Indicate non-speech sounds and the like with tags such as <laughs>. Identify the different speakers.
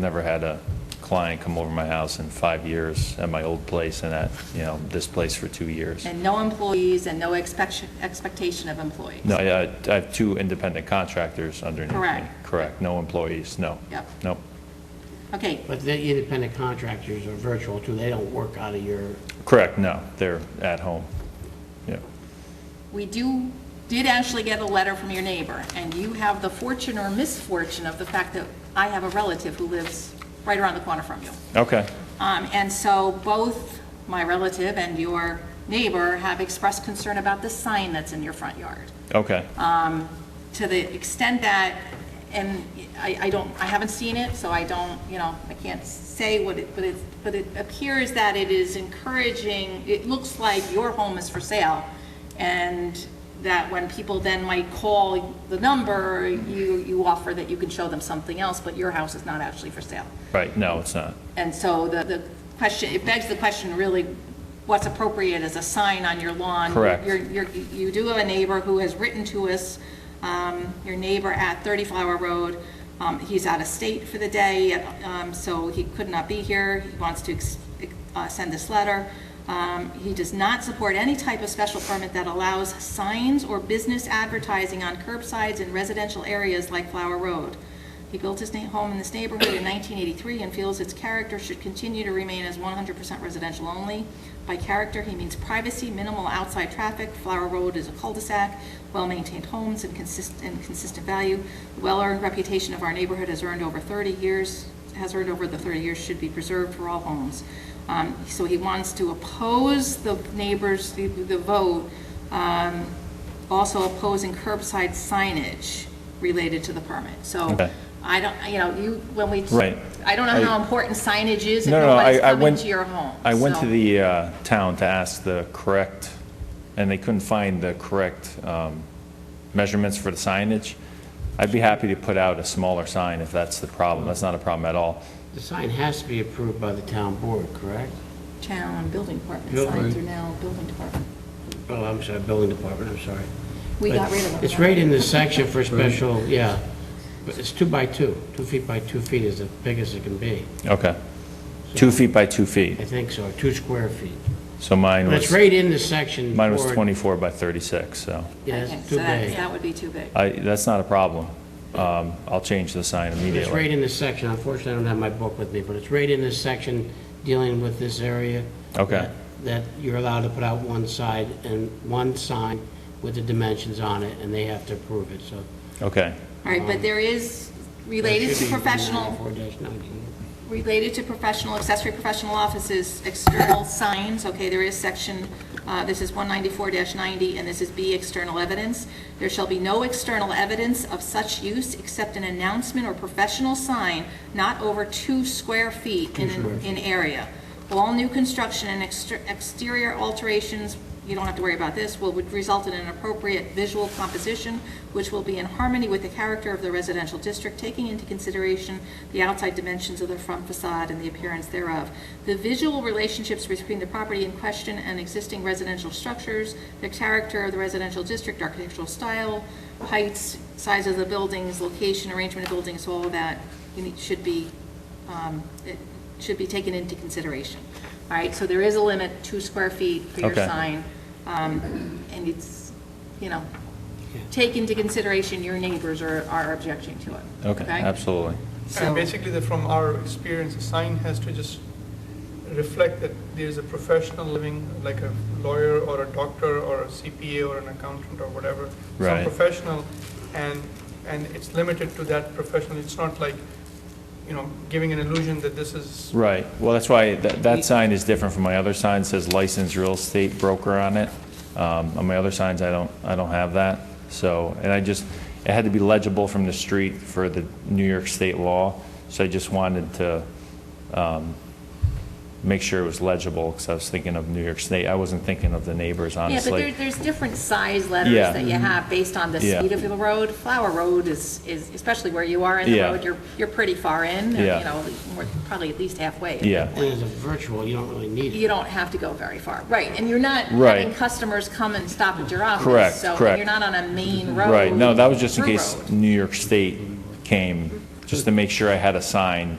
Speaker 1: Never had a client come over my house in five years at my old place and at, you know, this place for two years.
Speaker 2: And no employees and no expectation, expectation of employees?
Speaker 1: No, I uh, I have two independent contractors underneath me.
Speaker 2: Correct.
Speaker 1: Correct, no employees, no.
Speaker 2: Yep.
Speaker 1: No,
Speaker 2: Okay,
Speaker 3: But the independent contractors are virtual too, they don't work out of your,
Speaker 1: correct, no, they're at home. Yeah,
Speaker 2: we do, did actually get a letter from your neighbor, and you have the fortune or misfortune of the fact that I have a relative who lives right around the corner from you.
Speaker 1: okay,
Speaker 2: Um, And so both my relative and your neighbor have expressed concern about the sign that's in your front yard.
Speaker 1: okay,
Speaker 2: Uh, to the extent that, and I, I don't, I haven't seen it, so I don't, you know, I can't say what it, but it, but it appears that it is encouraging, it looks like your home is for sale, and that when people then might call the number, you, you offer that you can show them something else, but your house is not actually for sale.
Speaker 1: right, no, it's not.
Speaker 2: And so the, the question, it begs the question really, what's appropriate as a sign on your lawn?
Speaker 1: Correct.
Speaker 2: You're, you're, you do have a neighbor who has written to us, um, your neighbor at Thirty Flower Road. Um, he's out of state for the day, um, so he could not be here. He wants to, ex- uh, send this letter. Um, he does not support any type of special permit that allows signs or business advertising on curbsides in residential areas like Flower Road. He built his na- home in this neighborhood in 1983 and feels its character should continue to remain as 100% residential only. By character, he means privacy, minimal outside traffic, Flower Road is a cul-de-sac, well-maintained homes and consist- and consistent value. The well-earned reputation of our neighborhood has earned over 30 years, has earned over the 30 years, should be preserved for all homes. Um, So he wants to oppose the neighbors, the the vote, um, also opposing curbside signage related to the permit. So
Speaker 1: Okay.
Speaker 2: I don't, you know, you, when we,
Speaker 1: Right.
Speaker 2: I don't know how
Speaker 1: I-
Speaker 2: important signage is if
Speaker 1: No, no, I,
Speaker 2: nobody's
Speaker 1: I
Speaker 2: coming
Speaker 1: went.
Speaker 2: to your home.
Speaker 1: I went
Speaker 2: so-
Speaker 1: to the uh, town to ask the correct, and they couldn't find the correct um, measurements for the signage. I'd be happy to put out a smaller sign if that's the problem. That's not a problem at all.
Speaker 3: the sign has to be approved by the town board, correct?
Speaker 2: Town and building department,
Speaker 3: Building.
Speaker 2: signs are now building department.
Speaker 3: Oh, I'm sorry, building department, I'm sorry.
Speaker 2: We
Speaker 3: But
Speaker 2: got rid of them.
Speaker 3: It's right in the section <laughs> for special, yeah, but it's two by two, two feet by two feet is the biggest it can be,
Speaker 1: Okay. Two feet by two feet.
Speaker 3: I think so, two square feet.
Speaker 1: So mine
Speaker 3: But it's
Speaker 1: was,
Speaker 3: right in the section.
Speaker 1: mine was
Speaker 3: for-
Speaker 1: 24 by 36, so
Speaker 3: Yeah,
Speaker 2: Okay,
Speaker 3: it's
Speaker 2: so
Speaker 3: too
Speaker 2: that-
Speaker 3: big.
Speaker 2: That would be too big.
Speaker 1: I, that's not a problem. Um, I'll change the sign
Speaker 3: It's right
Speaker 1: immediately.
Speaker 3: in this section, unfortunately, I don't have my book with me, but it's right in this section dealing with this area.
Speaker 1: Okay.
Speaker 3: that- That you're allowed to put out one side and one sign with the dimensions on it, and they have to approve it, so.
Speaker 1: Okay,
Speaker 2: All right,
Speaker 3: Um,
Speaker 2: but there is, related to professional,
Speaker 3: Four nineteen.
Speaker 2: related to professional, accessory professional offices, external signs, okay, there is section, uh, this is 194-90, and this is B, external evidence. There shall be no external evidence of such use except an announcement or professional sign not over two square feet in, an- in area. All new construction and exter- exterior alterations, you don't have to worry about this, will would result in an appropriate visual composition, which will be in harmony with the character of the residential district, taking into consideration the outside dimensions of the front facade and the appearance thereof. The visual relationships between the property in question and existing residential structures, the character of the residential district, architectural style, heights, size of the buildings, location, arrangement of buildings, all of that you need- should be um, it should be taken into consideration. All right, so there is a limit, two square feet for your
Speaker 1: Okay.
Speaker 2: sign. um, And it's, you know, take into consideration your neighbors are, are objecting to it.
Speaker 1: okay, absolutely.
Speaker 2: So-
Speaker 4: And basically, the- from our experience, a sign has to just reflect that there's a professional living, like a lawyer or a doctor or a CPA or an accountant or whatever.
Speaker 1: Right.
Speaker 4: Some professional, and, and it's limited to that professional. It's not like, you know, giving an illusion that this is,
Speaker 1: Right, well, that's why, that, that sign is different from my other sign, It says licensed real estate broker on it. Um, On my other signs, I don't, I don't have that, so, and I just, it had to be legible from the street for the New York State law, so I just wanted to um, make sure it was legible, because I was thinking of New York State, I wasn't thinking of the neighbors,
Speaker 2: Yeah, but
Speaker 1: honestly.
Speaker 2: there, there's different size letters
Speaker 1: Yeah. Mm-hmm.
Speaker 2: that you have based on the
Speaker 1: Yeah.
Speaker 2: speed of the road. Flower Road is, is, especially where you are in the
Speaker 1: Yeah.
Speaker 2: road, you're, you're pretty far in, you
Speaker 1: Yeah.
Speaker 2: know, more- probably at least halfway.
Speaker 1: Yeah.
Speaker 3: And as a virtual, you don't really need it.
Speaker 2: you don't have to go very far. Right, and you're not
Speaker 1: Right.
Speaker 2: having customers come and stop at your office.
Speaker 1: Correct,
Speaker 2: so- and
Speaker 1: correct.
Speaker 2: you're not on a main road.
Speaker 1: Right, no, that was just in
Speaker 2: through
Speaker 1: case
Speaker 2: road.
Speaker 1: New York State came, just to make sure I had a sign